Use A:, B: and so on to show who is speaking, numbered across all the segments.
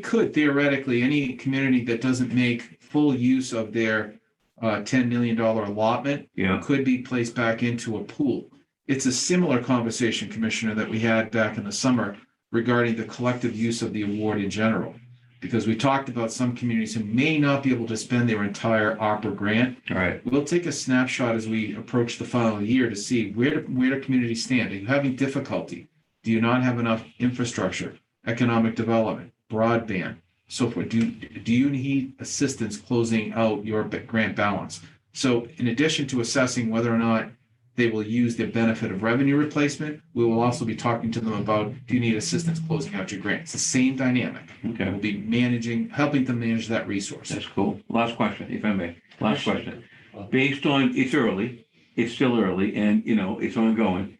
A: could theoretically, any community that doesn't make full use of their uh, ten million dollar allotment
B: Yeah,
A: could be placed back into a pool. It's a similar conversation, Commissioner, that we had back in the summer regarding the collective use of the award in general. Because we talked about some communities who may not be able to spend their entire opera grant.
B: all right.
A: We'll take a snapshot as we approach the final year to see where, where do communities stand? Are you having difficulty? Do you not have enough infrastructure, economic development, broadband, so forth? Do, do you need assistance closing out your b- grant balance? So in addition to assessing whether or not they will use the benefit of revenue replacement, we will also be talking to them about, do you need assistance closing out your grants? The same dynamic.
B: Okay,
A: We'll be managing, helping them manage that resource.
B: that's cool. Last question, if I may. Last question.
C: Question.
B: Based on, it's early, it's still early and, you know, it's ongoing.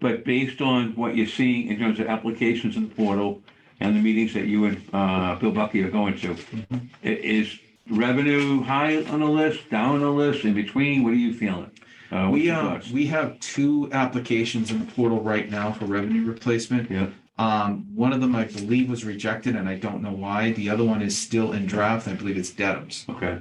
B: But based on what you're seeing in terms of applications in the portal and the meetings that you and uh, Bill Bucky are going to,
A: Mm-hmm.
B: i- is revenue high on the list, down on the list, in between? What are you feeling? Uh, what's
A: We,
B: your
A: uh,
B: thoughts?
A: we have two applications in the portal right now for revenue replacement.
B: Yeah,
A: Um, one of them, I believe, was rejected and I don't know why. The other one is still in draft. I believe it's Dedham's.
B: okay.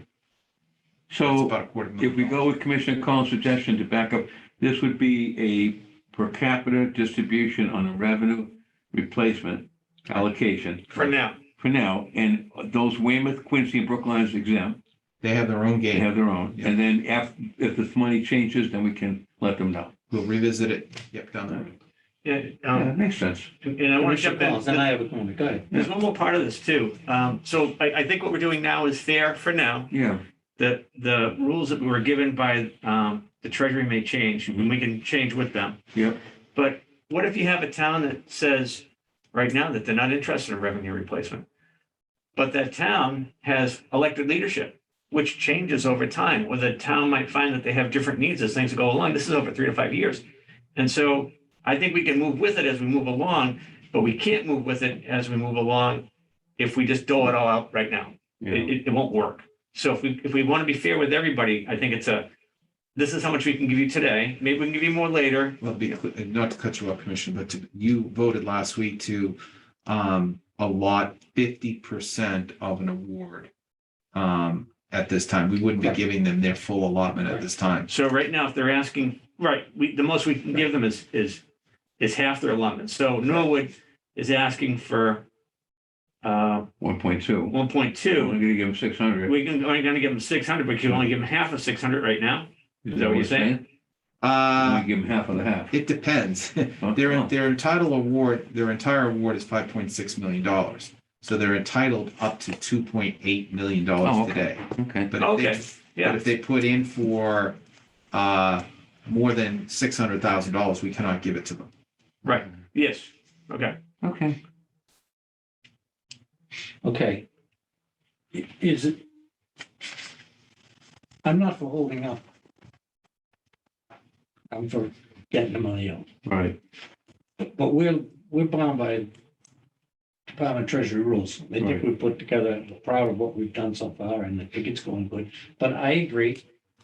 A: It's
B: So.
A: about a quarter million.
B: If we
A: dollars.
B: go with Commissioner Collins' suggestion to back up, this would be a per capita distribution on a revenue replacement allocation
C: For now.
B: for now. And those Weymouth, Quincy, and Brookline is exempt.
A: They have their own
B: They
A: game.
B: have their own. And then if, if this money changes, then we can let them know.
A: We'll revisit it. Yep, down the road.
C: And,
B: Yeah,
C: um,
B: That makes sense.
C: and I want to jump in.
D: Then I have a comment. Go ahead.
C: There's one more part of this too. Um, so I, I think what we're doing now is fair for now.
B: Yeah,
C: The, the rules that we were given by, um, the treasury may change and we can change with them.
B: Yep.
C: But what if you have a town that says right now that they're not interested in revenue replacement? But that town has elected leadership, which changes over time, or the town might find that they have different needs as things go along. This is over three to five years. And so I think we can move with it as we move along, but we can't move with it as we move along if we just dole it all out right now. It,
B: yeah,
C: it, it won't work. So if we, if we want to be fair with everybody, I think it's a, this is how much we can give you today. Maybe we can give you more later.
A: Well, be, cl- not to cut you off, Commissioner, but to- you voted last week to um, allot fifty percent of an award um, at this time. We wouldn't be
D: Right.
A: giving them their full allotment at this time.
C: So right now, if they're asking, right, we, the most we can give them is, is, is half their allotment. So Norwood is asking for, uh,
B: one point two.
C: one point
B: We're
C: two.
B: only gonna give them six hundred.
C: We can, only gonna give them six hundred, but you only give them half of six hundred right now. that what you're saying? Uh,
A: Uh,
B: We give them half of the half.
A: it depends.
B: Huh?
A: Their,
B: Oh,
A: their entitled award, their entire award is five point six million dollars. So they're entitled up to two point eight million
B: Oh,
A: dollars
B: okay.
A: today.
B: Okay,
A: But if
C: Okay,
A: they,
C: yeah.
A: but if they put in for, uh, more than six hundred thousand dollars, we cannot give it to them.
C: Yes, okay.
B: okay.
D: Okay. I- Is it? I'm not for holding up. I'm for getting the money out,
B: All right,
D: but we're, we're bound by Department of Treasury rules. I think
B: Right.
D: we put together, we're proud of what we've done so far and I think it's going good. But I agree,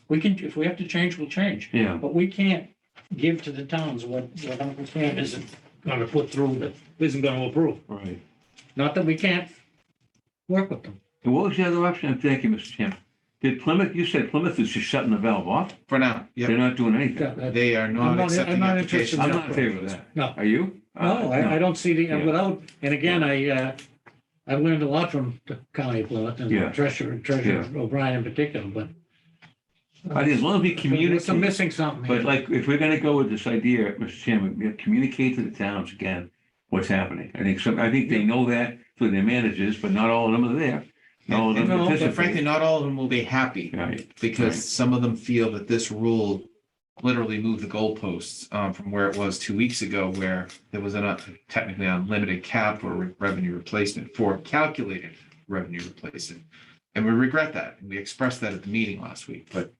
D: we can, if we have to change, we'll change.
B: yeah,
D: But we can't give to the towns what, what Uncle Sam isn't gonna put through, that isn't gonna approve.
B: all right.
D: Not that we can't work with them.
B: And what was the other option? Thank you, Mr. Chairman. Did Plymouth, you said Plymouth is just shutting the valve off?
A: For now,
B: They're
A: yeah,
B: not doing anything.
D: No,
A: they are
D: I'm
A: not
D: not- I'm
A: accepting
D: not
A: applications.
D: interested in
B: I'm not in favor of that.
D: No.
B: Are you?
D: oh,
B: Uh,
D: I, I don't see the,
B: Yeah.
D: without, and again, I, uh, I've learned a lot from the county of Plymouth
B: Yeah.
D: and Treasurer, Treasurer O'Brien in particular, but.
B: I think as long as we
D: There's some
B: communicate,
D: missing something.
B: but
D: here.
B: like, if we're gonna go with this idea, Mr. Chairman, we have to communicate to the towns again what's happening. I think some, I think they know that through their managers, but not all of them are there. Not all of them
A: And- and
B: participate.
A: Frankly, not all of them will be happy.
B: Right,
A: because
B: Right.
A: some of them feel that this rule literally moved the goalposts um, from where it was two weeks ago, where there was a technically unlimited cap for re- revenue replacement for calculated revenue replacement. And we regret that. And we expressed that at the meeting last week. But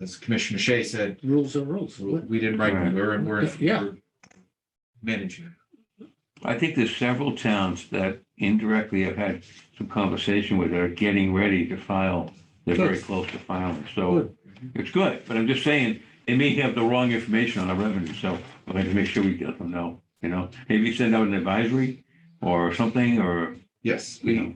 A: as Commissioner Shea said,
D: Rules are rules.
A: we did right.
B: Right.
A: We're, we're,
D: Yeah.
A: we're managing. it.
B: I think there's several towns that indirectly I've had some conversation with are getting ready to file. They're very
D: Good.
B: close to filing, so
D: Good.
B: it's good, but I'm just saying, they may have the wrong information on our revenue, so we have to make sure we let them know, you know? Maybe send out an advisory or something, or
E: Yes.
A: We,